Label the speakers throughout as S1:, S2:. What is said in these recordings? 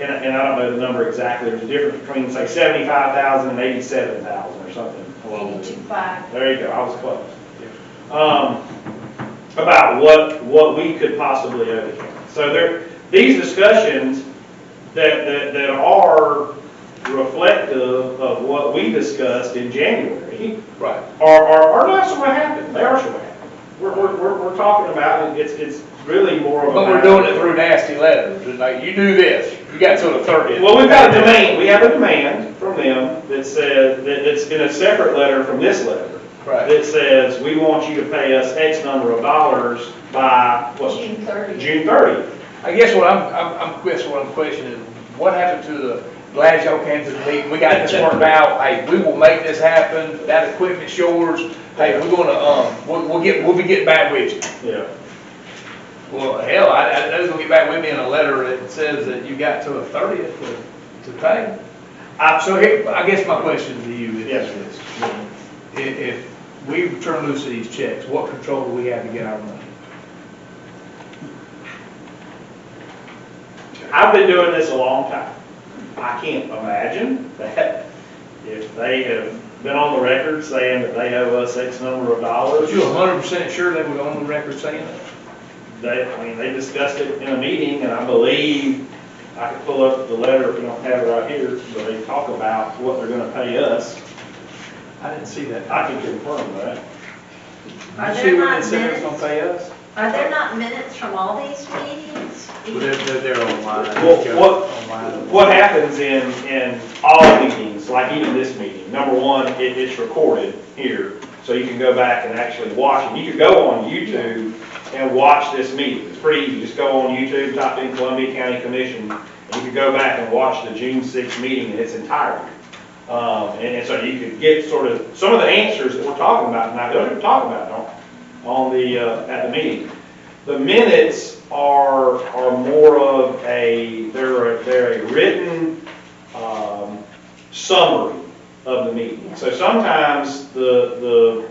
S1: and, I- and I don't know the number exactly, there's a difference between, say, seventy-five thousand and eighty-seven thousand or something. along those.
S2: Eighty-two five.
S1: There you go, I was close. Um, about what, what we could possibly overcome. So there, these discussions that, that, that are reflective of what we discussed in January
S3: Right.
S1: are, are, are not sure what happened, they are sure what happened. We're, we're, we're, we're talking about, it. it's, it's really more of a.
S3: But we're doing it through nasty letters, It's like, you do this, you got till the thirtieth.
S1: Well, we've got a demand, we have a demand from them that said, that, that's in a separate letter from this letter.
S3: Right.
S1: That says, we want you to pay us X number of dollars by, what's it?
S2: June 30th.
S1: June thirtieth.
S3: I guess what I'm, I'm, I'm, guess what I'm questioning, what happened to the, glad y'all came to the meeting, we got this worked out, hey, we will make this happen, that equipment's yours, hey, we're gonna, um, we'll, we'll get, we'll be getting back with you.
S1: Yeah.
S3: Well, hell, I, I, that's gonna get back with me in a letter that says that you got till the thirtieth to, to pay. I, so here, I guess my question to you is
S1: Yes.
S3: this. If, if we turn loose of these checks, what control do we have to get our money?
S1: I've been doing this a long time. I can't imagine that if they have been on the record saying that they owe us X number of dollars.
S3: Was you hundred percent sure they were on the record saying that?
S1: They, I mean, they discussed it in a meeting, and I believe, I could pull up the letter if you don't have it right here, but they talk about what they're gonna pay us.
S3: I didn't see that.
S1: I can confirm that.
S2: Are
S3: You
S2: there
S3: see when
S2: not
S3: it said it's gonna
S2: minutes,
S3: pay us?
S2: are there not minutes from all these meetings?
S3: they're, they're online.
S1: Well, what, what happens in, in all meetings, like even this meeting, number one, it, it's recorded here, so you can go back and actually watch it. You could go on YouTube and watch this meeting. It's pretty easy. Just go on YouTube, type in Columbia County Commission, and you could go back and watch the June sixth meeting in its entirety. Um, and, and so you could get sort of, some of the answers that we're talking about tonight, those we're talking about on, on the, uh, at the meeting. The minutes are, are more of a, they're, a- they're a written, um, summary of the meeting. So sometimes the, the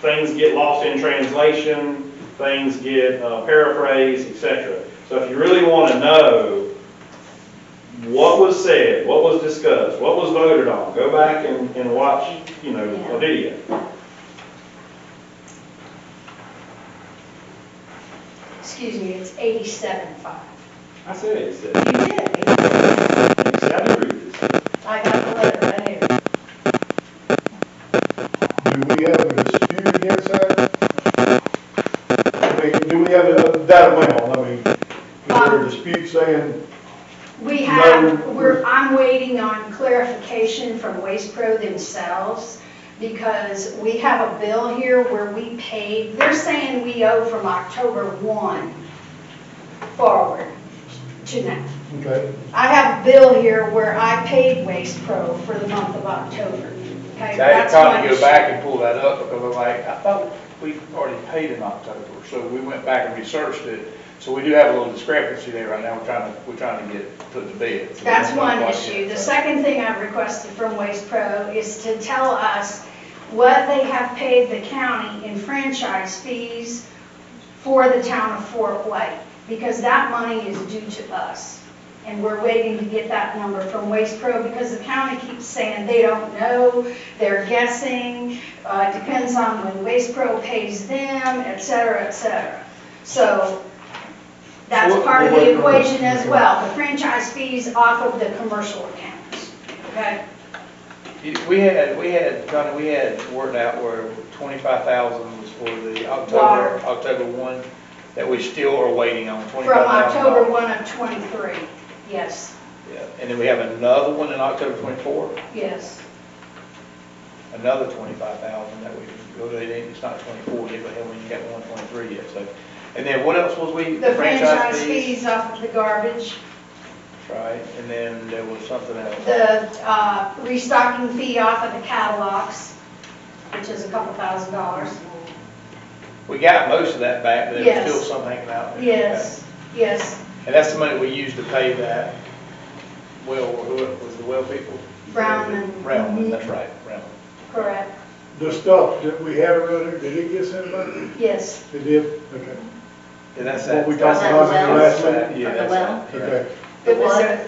S1: things get lost in translation, things get uh, paraphrased, et cetera. So if you really want to know what was said, what was discussed, what was voted on, go back and, and watch, you know, a video.
S4: Excuse me, it's eighty-seven five.
S1: I said it,
S4: You
S1: said,
S4: did, 87.5.
S1: I agree with this.
S4: I got the letter right here.
S5: Do we have a dispute against that? I mean, do we have a- that amount, I mean, is there a dispute saying,
S4: We
S5: No.
S4: have, we're, I'm waiting on clarification from Waste Pro themselves because we have a bill here where we paid, they're saying we owe from October one forward to now.
S5: okay,
S4: I have a bill here where I paid Waste Pro for the month of October. Okay,
S3: They had
S4: that's
S3: probably
S4: my
S3: go
S4: issue.
S3: back and pull that up, because I'm like, I thought we already paid in October, so we went back and researched it. So we do have a little discrepancy there right now, we're trying to, we're trying to get it put to bed. So we
S4: That's
S3: don't know
S4: one
S3: quite
S4: issue.
S3: yet,
S4: The
S3: so.
S4: second thing I've requested from Waste Pro is to tell us what they have paid the county in franchise fees for the town of Fort White, because that money is due to us. And we're waiting to get that number from Waste Pro, because the county keeps saying they don't know, they're guessing, uh, it depends on when Waste Pro pays them, et cetera, et cetera. So that's
S5: What-
S4: part of
S5: what-
S4: the equation as well, the franchise fees off of the commercial accounts, okay?
S3: You- We had, we had, Johnny, we had worked out where twenty-five thousand was for the
S4: Water.
S3: October, October one, that we still are waiting on,
S4: From
S3: twenty-five thousand.
S4: October 1 of '23, yes,
S3: And then we have another one in October twenty-four.
S4: yes.
S3: another twenty-five thousand that we, oh, they didn't- it's not twenty-four yet, but hell, we ain't got one twenty-three yet, so. And then what else was we?
S4: The franchise fees off of the garbage,
S3: Right, and then there was something else.
S4: the uh, restocking fee off of the catalogs, which is a couple thousand dollars.
S3: We got most of that back, but there
S4: Yes.
S3: was still some hanging out there.
S4: Yes, yes,
S3: And that's the money we used to pay that, well, who was the well people?
S4: Brownman.
S3: Brownman,
S4: Mhm.
S3: that's right, Brownman.
S4: correct,
S5: the stuff that we had around there, did it get sent back?
S4: yes.
S5: It did, okay,
S3: And that's
S5: What
S3: that.
S5: we
S3: that's
S5: talked
S3: that-
S2: about in the
S3: that's
S5: last
S3: that,
S5: meeting?
S3: Yeah,
S2: The
S3: that's
S2: well?
S3: that, correct.
S5: okay.
S4: It was
S2: water.
S4: a-